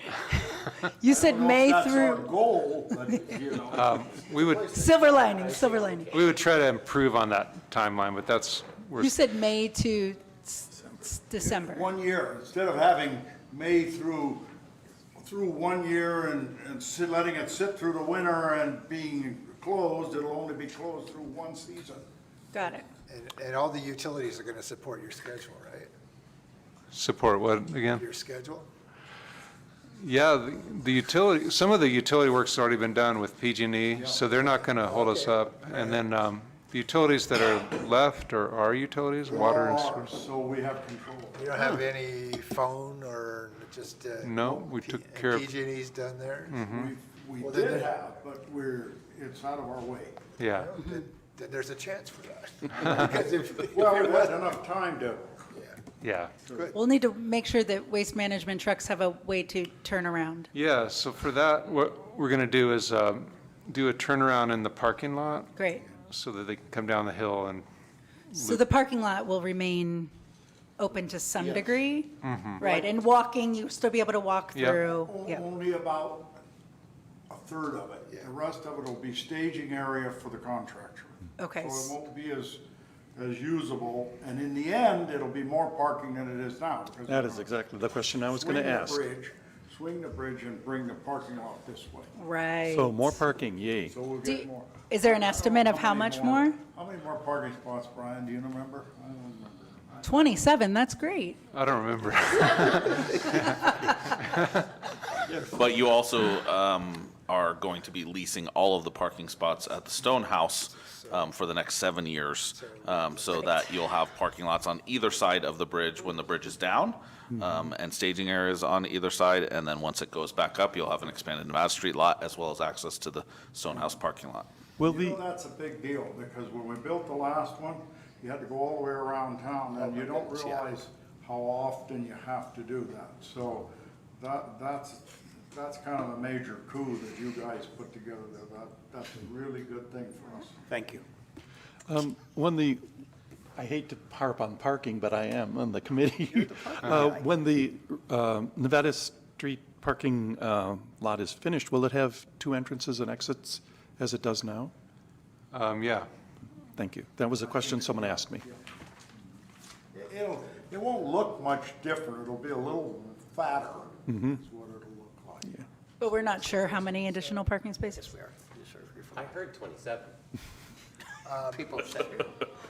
You said May That's our through, goal, but, you know, We would, silver lining, silver lining. we would try to improve on that timeline, but that's, we're, You said May to s- s- December. one year, instead of having May through, through one year and, and sit- letting it sit through the winter and being closed, it'll only be closed through one season. Got it. And, and all the utilities are going to support your schedule, right? support what, again? Your schedule? Yeah, the- the utility, some of the utility work's already been done with PG&E, E, so they're not going to hold us up. And then um, the utilities that are left are our utilities, water and Or- sewer. So we have control. You don't have any phone or just, uh? No, we took and care of- Mm. PG&E's done there? We, we Well, then did it- have, but we're, it's out of our way. Yeah, Then- Then there's a chance for that. Because if, if Well, it we had wasn't- enough time to, yeah. We'll need to make sure that waste management trucks have a way to turn around. Yeah, so for that, what we're going to do is um, do a turnaround in the parking lot Great. so that they can come down the hill and, So the parking lot will remain open to some degree? Mm-hmm. Right, and walking, you'll still be able to walk Yeah. through? o- Oh, Yeah, only about a third of it. The rest of it will be staging area for the contractor. Okay. So it won't be as, as usable, and in the end, it'll be more parking than it is now. because That they're is gonna exactly the question I was going swing to the ask. bridge- Swing the bridge and bring the parking lot this way, right. So more parking, yay. so we'll Do- get more. Is there an I don't estimate know of how many much more? How many more parking spots, Brian, do you remember? I don't remember. 27, that's great. I don't remember. But you also um, are going to be leasing all of the parking spots at the Stone House um, for the next seven years, um, so that you'll have parking lots on either side of the bridge when the bridge is down, um, and staging areas on either side, and then once it goes back up, you'll have an expanded Nevada Street lot, as well as access to the Stone House parking lot. Will You know, the, that's a big deal, because when we built the last one, you had to go all the way around town, and you don't realize how often you have to do that. So that, that's, that's kind of a major coup that you guys put together there. That, that's a really good thing for us. Thank you. um, when the, I hate to harp on parking, but I am on the committee. Uh, When the um, Nevada Street parking uh, lot is finished, will it have two entrances and exits as it does now? Um, Yeah, Thank you. That was a question someone asked me. It- It'll, it won't look much different. It'll be a little fatter, is what it'll look like. But we're not sure how many additional parking spaces? We are, you sure, you're fine. I heard 27. People said.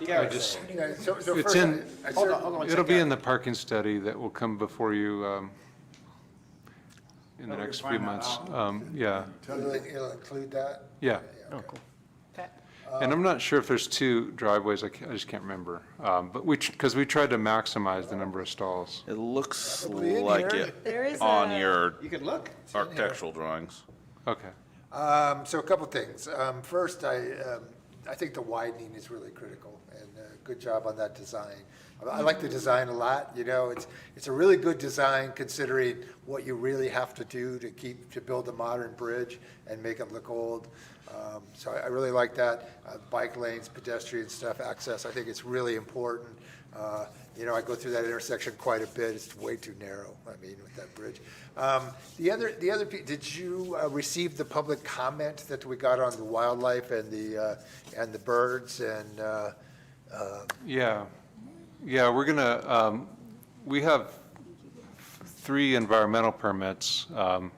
I just, Yeah, so- so It's first, in- I- I Hold on, cer- hold on. one It'll be in second. the parking study that will come before you um, in the Well, we next can few find that months. out. Um, Yeah, It'll it'll include that? yeah. Okay. And I'm not sure if there's two driveways, I can't- I just can't remember. Um, But we, because we tried to maximize the number of stalls. It looks Probably in like here. There is it Uh, on a- your You can look. architectural drawings. Okay. Um, so a couple things. Um, first, I, um, I think the widening is really critical and uh, good job on that design. I, I like the design a lot, you know, it's, it's a really good design considering what you really have to do to keep, to build a modern bridge and make it look old. Um, so I, I really like that. Uh, bike lanes, pedestrian stuff, access, I think it's really important. Uh, you know, I go through that intersection quite a bit. It's way too narrow, I mean, with that bridge. Um, The other, the other, pe- did you uh, receive the public comment that we got on the wildlife and the, uh, and the birds and, uh, uh, Yeah, yeah, we're gonna, um, we have three environmental permits. Um,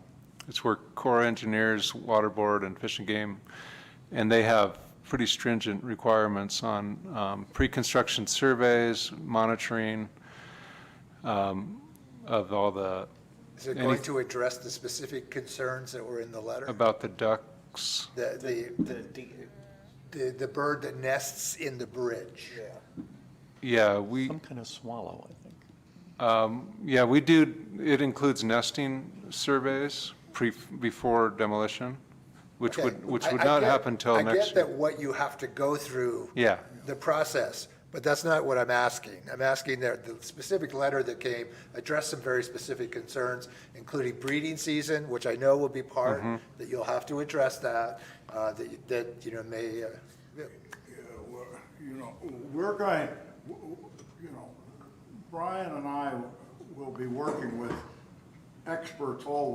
It's where Corps Engineers, Water Board, and Fish and Game, and they have pretty stringent requirements on um, pre-construction surveys, monitoring um, of all the, is it Any- Um, going to address the specific concerns that were in the letter? about the ducks. The, the- The D- the, the bird that nests in the bridge? Yeah, we. Some kind of swallow, I think. Yeah, we do, it includes nesting surveys pre, before demolition, which Okay. would, which I- would I not get- happen till I get next that year. what you have to go through. Yeah. The process, but that's not what I'm asking. I'm asking that the specific letter that came addressed some very specific concerns, including breeding season, which I know will be part, Mm-hmm. that you'll have to address that, uh, that, you- that, you know, may, uh, Yeah, we're- you know, we're going, w- w- you know, Brian and I will be working with experts all